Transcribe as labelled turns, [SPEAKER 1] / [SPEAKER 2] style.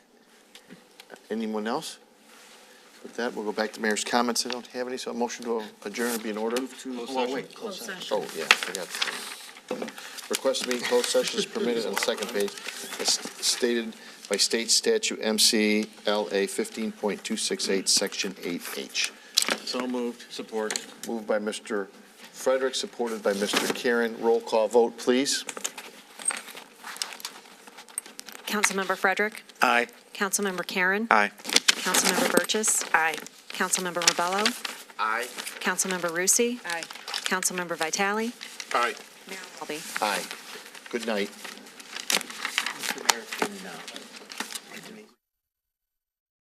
[SPEAKER 1] Anyone else? With that, we'll go back to mayor's comments. I don't have any, so a motion to adjourn would be in order. Oh, wait.
[SPEAKER 2] Close session.
[SPEAKER 1] Oh, yeah, I forgot. Request to meet in closed session is permitted on the second page, as stated by state statute MC LA fifteen point two six eight, section eight H.
[SPEAKER 3] So moved. Support.
[SPEAKER 1] Moved by Mr. Frederick, supported by Mr. Karen. Roll call vote, please.
[SPEAKER 4] Councilmember Frederick.
[SPEAKER 3] Aye.
[SPEAKER 4] Councilmember Karen.
[SPEAKER 3] Aye.
[SPEAKER 4] Councilmember Burgess. Aye. Councilmember Rebello. Aye. Councilmember Rusi.
[SPEAKER 2] Aye.
[SPEAKER 4] Councilmember Vitale.
[SPEAKER 1] Aye.
[SPEAKER 4] Mayor Walby.
[SPEAKER 1] Aye. Good night.